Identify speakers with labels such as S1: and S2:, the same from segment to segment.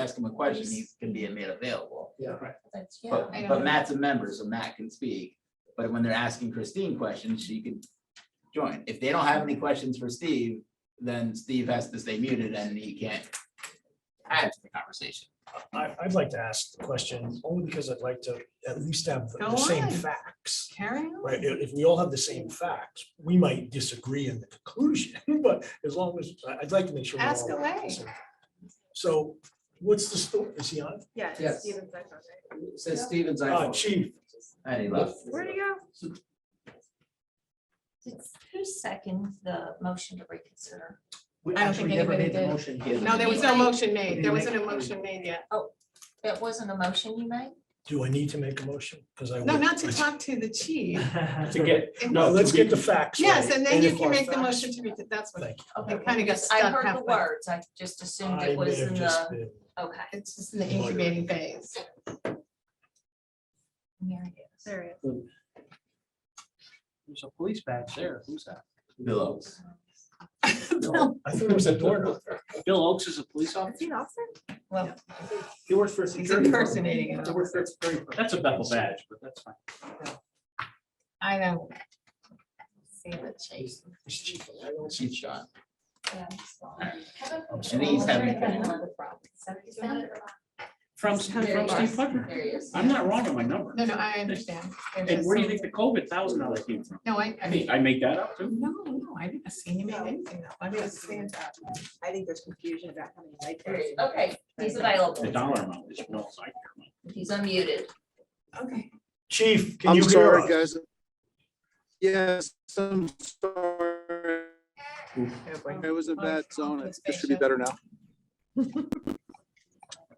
S1: ask him a question, he can be made available.
S2: That's, yeah,
S1: But,
S2: I
S1: but
S2: don't,
S1: Matt's a member, so Matt can speak. But when they're asking Christine questions, she can join. If they don't have any questions for Steve, then Steve has to stay muted and he can't add to the conversation.
S3: I, I'd like to ask the question only because I'd like to at least have the
S2: Go
S3: the same
S2: on.
S3: facts.
S2: carry on.
S3: Right, if, if we all have the same facts, we might disagree in the conclusion, but as long as, I- I'd like to make sure. we all
S2: Ask
S3: have the
S2: away.
S3: same. So what's the story, is he on?
S4: Yeah. it's
S5: Yes.
S4: Steven's iPhone, right?
S5: Says Stevens, I.
S3: Uh, chief,
S1: And he left.
S4: Where'd he go?
S2: Did- Who seconded the motion to reconsider?
S4: I don't think anybody did.
S5: Motion here.
S4: No, there was no motion made. There
S3: You
S4: wasn't a motion made yet.
S2: That wasn't a motion you made?
S3: do I need to make a motion? Because I.
S4: No,
S3: would-
S4: not to talk to the chief.
S6: To get, no.
S3: No,
S6: to
S3: let's
S6: be-
S3: get the facts.
S4: Yes,
S3: right,
S4: and then you
S3: if
S4: can
S3: our
S4: make the
S3: facts-
S4: motion to read it. That's what,
S3: Thank you.
S2: Okay,
S4: it kind of
S2: I
S4: got stuck
S2: heard the
S4: halfway.
S2: words, I just assumed
S3: I
S2: it
S3: may
S2: was
S3: have
S2: in
S3: just
S2: the,
S3: been-
S2: okay.
S4: It's just in the incubating phase.
S2: yeah, I guess.
S4: There it
S6: There's a police badge there. Who's that?
S1: Bill Oaks.
S3: I thought it was a door knocker.
S6: Bill Oakes is a police
S4: is. Is he
S6: officer?
S4: an officer?
S2: Well,
S5: He works for. a
S4: He's
S5: security firm.
S4: impersonating an
S5: He works for a security firm.
S6: That's a Bethel badge, but that's fine.
S2: I don't. See the chase.
S3: It's chief, I don't see-
S1: Chief shot.
S2: Yeah, I'm sorry.
S3: I'm
S1: And he's having.
S6: From, from
S2: There you are.
S6: Steve Putnam.
S2: There he is.
S6: I'm not wrong on my number.
S4: No, no, I understand. There's
S6: And
S4: just
S6: where do you
S4: some-
S6: think the COVID thousand dollar came from?
S4: No, I, I
S6: I mean,
S4: mean,
S6: I make that up too.
S4: no, no, I didn't see him in anything. though. I didn't see him.
S7: I think there's confusion about how many light
S2: There he is.
S7: bulbs.
S2: Okay, he's
S6: The
S2: available.
S6: dollar amount is no, I care. about.
S2: He's unmuted.
S4: Okay.
S3: Chief, can
S8: I'm
S3: you hear
S8: sorry,
S3: us?
S8: guys. Yes, I'm sorry. It was a bad zone. It's- It should be better now.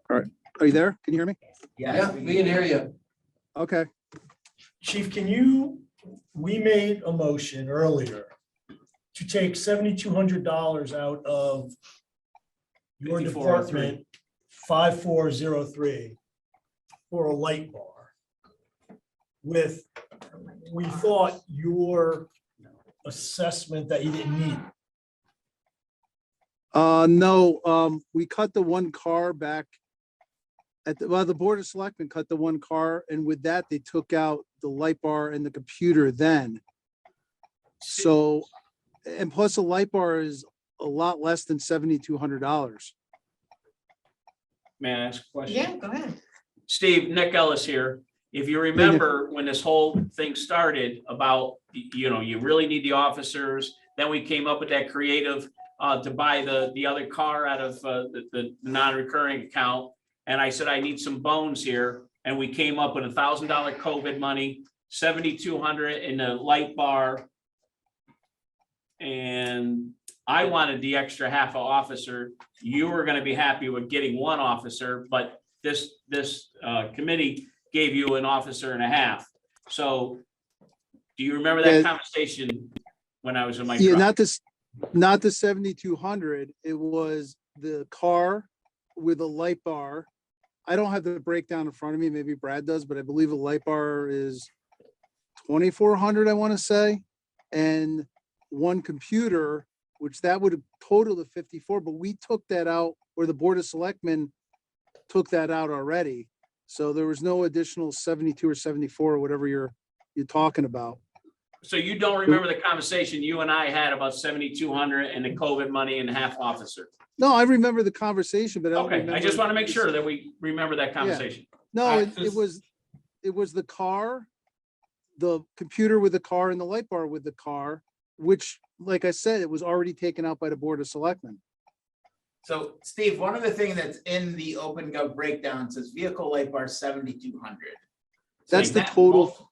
S8: All right. Are you there? Can you hear me?
S5: Yeah, we can hear you.
S8: Okay.
S3: Chief, can you, we made a motion earlier to take seventy-two hundred dollars out of your
S6: 5403.
S3: department, five four zero three, for a light bar. With, we thought your assessment that you didn't need.
S8: Uh, no, um, we cut the one car back. At the, well, the Board of Selectmen cut the one car and with that, they took out the light bar and the computer then. So, and plus a light bar is a lot less than seventy-two hundred dollars.
S6: May I ask a question?
S4: Yeah, go ahead.
S6: Steve, Nick Ellis here. If you remember when this whole thing started about, y- you know, you really need the officers, then we came up with that creative uh, to buy the, the other car out of uh, the, the non-recurring account. And I said, I need some bones here. And we came up with a thousand dollar COVID money, seventy-two hundred in a light bar. And I wanted the extra half a officer. You were gonna be happy with getting one officer, but this, this uh, committee gave you an officer and a half. So do you remember
S8: Yeah.
S6: that conversation when I was in my
S8: Yeah,
S6: truck?
S8: not this, not the seventy-two hundred. It was the car with a light bar. I don't have the breakdown in front of me. Maybe Brad does, but I believe a light bar is twenty-four hundred, I want to say. And one computer, which that would have totaled to fifty-four, but we took that out, or the Board of Selectmen took that out already. So there was no additional seventy-two or seventy-four, or whatever you're, you're talking about.
S6: So you don't remember the conversation you and I had about seventy-two hundred and the COVID money and half officer?
S8: No, I remember the conversation, but I don't
S6: Okay, I
S8: remember-
S6: just want to make sure that we remember that conversation.
S8: No,
S6: I
S8: it, it
S6: just-
S8: was, it was the car, the computer with the car and the light bar with the car, which, like I said, it was already taken out by the Board of Selectmen.
S1: So Steve, one of the things that's in the open gov breakdown says vehicle light bar seventy-two hundred.
S8: That's the total-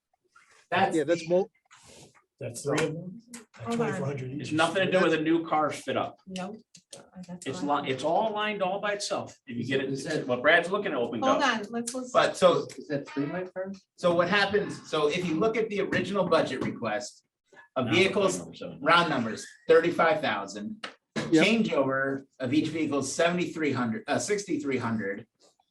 S1: That's.
S8: Yeah, that's
S1: the-
S8: mul-
S3: That's three of them.
S4: Hold on.
S3: Twenty-four hundred each.
S6: It's nothing to do with a new car fit up.
S4: No. that's
S6: It's
S4: all I
S6: li-
S4: have.
S6: it's all lined all by itself. If you get it, what Brad's looking at open
S4: Hold
S6: up.
S4: on, let's listen.
S1: But so,
S5: Is that three light bars?
S1: so what happens, so if you look at the original budget request, a vehicle's round numbers, thirty-five thousand.
S8: Yep.
S1: Changeover of each vehicle, seventy-three hundred, uh, sixty-three hundred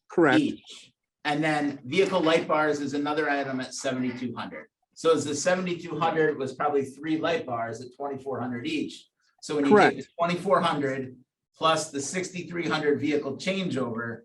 S8: correct.
S1: each. And then vehicle light bars is another item at seventy-two hundred. So as the seventy-two hundred was probably three light bars at twenty-four hundred each. So when you take the twenty-four hundred plus the sixty-three hundred vehicle changeover,